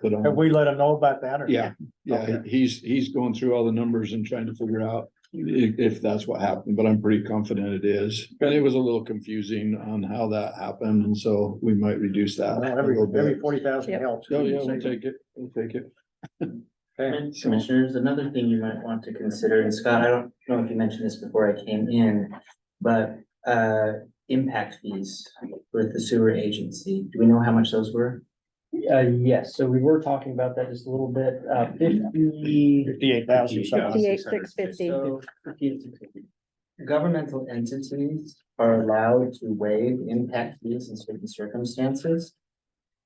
put Have on. we let them know about that or? um, Yeah, yeah, Okay. he's, he's going through all the numbers and trying to figure out i- if that's what happened, but I'm pretty confident it is. But it was a little confusing on how that happened, and so we might reduce that. Well, a Every, little bit. every forty thousand Yep. helps. Oh, yeah, we'll take it, we'll take it. Okay. And Commissioners, another thing you might want to consider, and Scott, I don't know if you mentioned this before I came in, but uh, impact fees with the sewer agency, do we know how much those were? Uh, yes, so we were talking about that just a little bit, uh, fifty, Fifty-eight thousand something. Fifty-eight, six fifty. So governmental entities are allowed to waive impact fees in certain circumstances.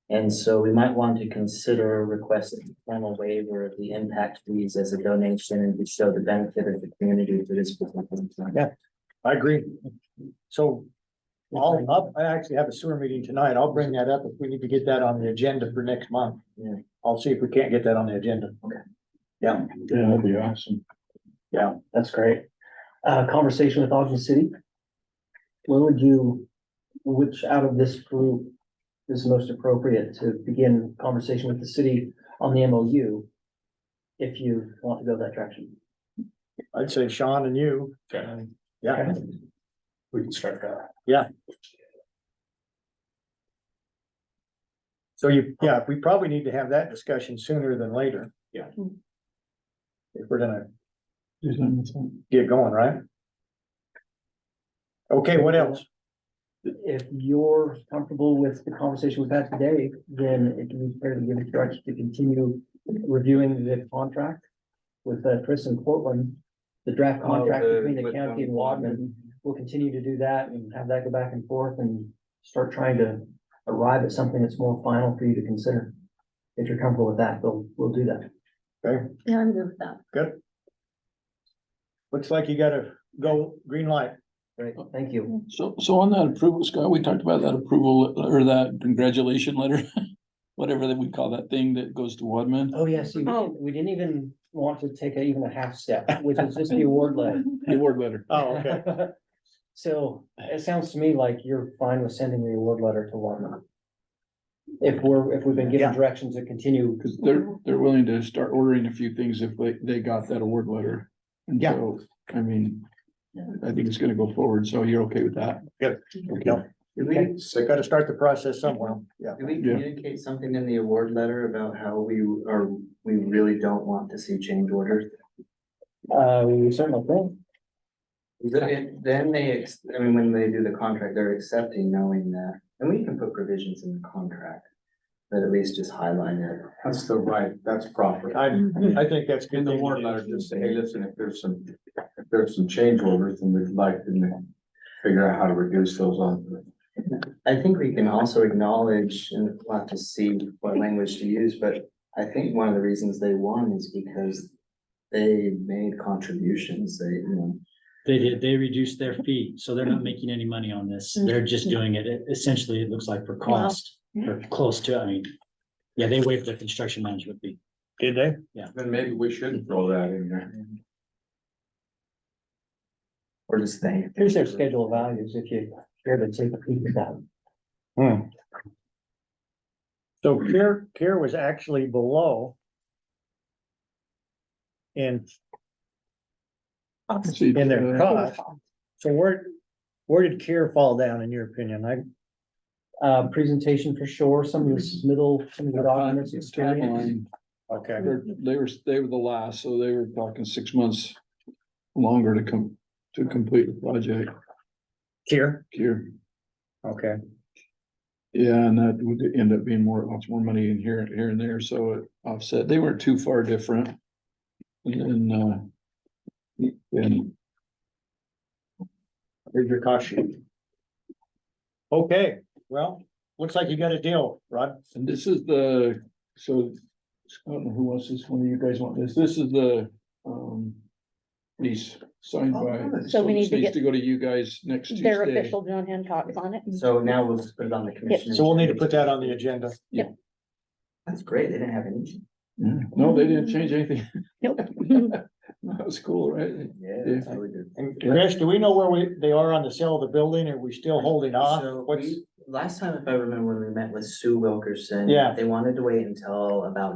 And so we might want to consider requesting a formal waiver of the impact fees as a donation and to show the benefit of the community to this. particular time. Yeah. I agree. So I'll, uh, I'll- I actually have a sewer meeting tonight. I'll bring that up if we need to get that on the agenda for next month. Yeah. I'll see if we can't get that on the agenda. Yeah, Yeah, that'd be awesome. that's great. Uh, conversation with Ogden City. When would you, which out of this group is most appropriate to begin conversation with the city on the MOU? If you want to go that direction. I'd say Sean and you. Okay. Yeah, We can start that. so you, yeah, we probably need to have that discussion sooner than later. Yeah. Hmm. If we're gonna Is that what's on? get going, right? Okay, what else? If you're comfortable with the conversation we've had today, then it can be fair to give direction to continue reviewing the contract with uh, Chris and Portland, the draft Oh, contract the- between the with, county and um, Wadman. We'll continue to do that and have that go back and forth and start trying to arrive at something that's more final for you to consider. If you're comfortable with that, we'll, we'll do that. Yeah, I'm good with that. Looks like you gotta go green light. Great, thank you. So, so on that approval, Scott, we talked about that approval or that congratulation letter, whatever that we call that thing that goes to Wadman. Oh, yeah, see, we Oh. didn't- we didn't even want to take a- even a half step, which is just the award letter. The award letter. Oh, okay. So it sounds to me like you're fine with sending the award letter to Walmart. If we're, if we've been given Yeah. direction to continue, Cause they're, they're willing to start ordering a few things if they, they got that award letter. And Yeah. so, I mean, I think it's gonna go forward, so you're okay with that? Good. Okay. Did Okay. we, So gotta start the process somewhere, yeah. did we Yeah. communicate something in the award letter about how we are, we really don't want to see change orders? uh, we certainly think. Then then they, ex- I mean, when they do the contract, they're accepting knowing that, and we can put provisions in the contract. That at least just highlight it. That's the right, that's proper. I, I think that's good. In the thing to warrant do. letter, just say, hey, listen, if there's some, if there's some change orders, then we'd like to figure out how to reduce those on. I think we can also acknowledge, and we'll have to see what language to use, but I think one of the reasons they won is because. They made contributions, they, you know, They did, they reduced their fee, so they're not making any money on this. They're just doing it, essentially, it looks like for cost, or close to, I mean. Yeah, they waived their construction management fee. Did they? Then maybe we should throw that in there. or just they. Here's their schedule of values, if you care to take a peek at that. So care, care was actually below. And See, in their uh, cost, mm-hmm. so where, where did care fall down in your opinion? I, Uh, presentation for sure, some of this middle, some of their the documents. time- experience. timeline, okay, they're- They were, they were the last, so they were talking six months longer to come, to complete the project care, here. okay, Yeah, and that would end up being more, lots more money in here, here and there, so it offset, they weren't too far different. And then, uh. And here's your cost sheet. Okay, well, looks like you got a deal, Rod. And this is the, so, I don't know who wants this, one of you guys want this, this is the, um. Lease signed by. So we need this to needs get To go to you guys next Their Tuesday. official John Hancock's on it. So now we'll just put it on the commission. So we'll need to put that on the agenda. That's great, they didn't have any. Yeah. No, they didn't change anything. Mm-hmm. Nope. That was cool, right? Yeah, that's really good. And Chris, do we know where we, they are on the sale of the building? Are we still holding off? So What's, we- last time, if I remember, when we met with Sue Wilkerson. Yeah. They wanted to wait until about